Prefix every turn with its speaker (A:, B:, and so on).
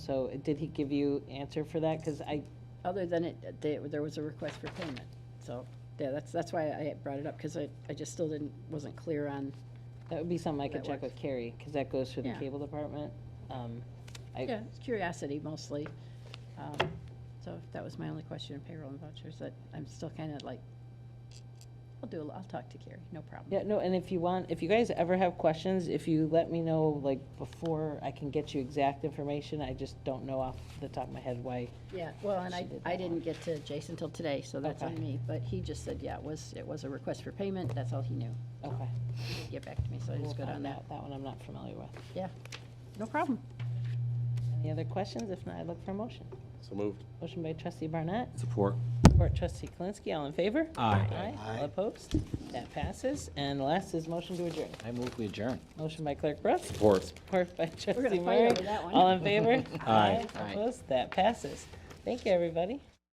A: So did he give you answer for that? Because I,
B: Other than it, they- there was a request for payment. So, yeah, that's, that's why I brought it up, because I, I just still didn't, wasn't clear on,
A: that would be something I could
B: That
A: check
B: works.
A: with Carrie, because that goes through the
B: Yeah.
A: cable department. Um, I-
B: yeah, it's curiosity mostly. Um, So that was my only question in payroll and vouchers, that I'm still kind of like, I'll do, a- I'll talk to Carrie, no problem.
A: Yeah, no, and if you want, if you guys ever have questions, if you let me know, like, before I can get you exact information, I just don't know off the top of my head why.
B: Yeah, well, and I,
A: She did
B: I
A: that one.
B: didn't get to Jason till today, so that's on
A: Okay.
B: me. But he just said, yeah, it was, it was a request for payment, that's all he knew.
A: Okay.
B: He didn't Get back to me, so I
A: we'll
B: just got on
A: find
B: that.
A: out. That one I'm not familiar with.
B: Yeah, no problem.
A: Any other questions? If not, I look for a motion.
C: So moved.
A: Motion by trustee Barnett,
D: Support.
A: support trustee Kalinsky, all in favor?
D: Aye.
A: Aye, all opposed? That passes. And last is motion to adjourn.
D: I move we adjourn.
A: Motion by clerk Brooks.
D: Support.
A: Support by trustee
B: gonna fight
A: Murray.
B: over that one.
A: All in favor?
D: Aye.
A: Opposed? That passes. Thank you, everybody.